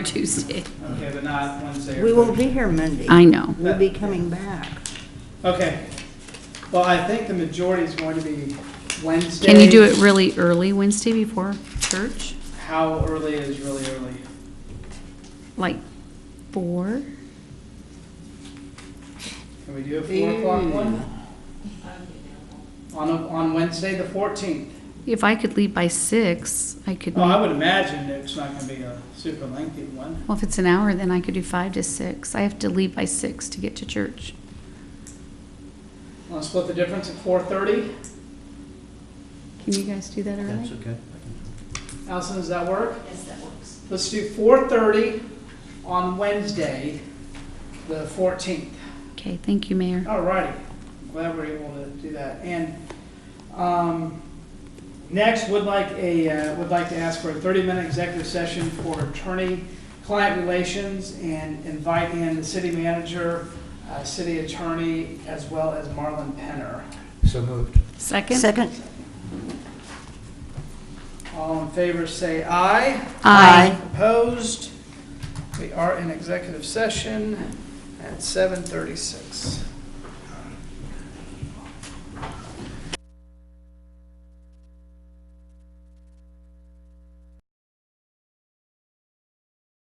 Tuesday. Okay, but not Wednesday or We won't Thursday. be here Monday. I know. We'll be coming back. Okay. Well, I think the majority is going to be Wednesday. Can you do it really early Wednesday before church? How early is really early? Like four? Can we do a four o'clock one? On, a- on Wednesday, the fourteenth. If I could leave by six, I could, Oh, I well, would imagine it's not gonna be a super lengthy one. if it's an hour, then I could do five to six. I have to leave by six to get to church. Wanna split the difference at four thirty? Can you guys do that That's early? okay. Allison, does that work? Yes, that works. Let's do four thirty on Wednesday, the fourteenth. Okay, thank you, Mayor. All righty, glad we're able to do that. And um, next, would like a, uh, would like to ask for a 30-minute executive session for attorney-client relations and invite in the city manager, uh, city attorney, as well as Marlon Penner. So moved. Second? Second? All in favor, say aye. Aye. Opposed? We are in executive session at 7:36.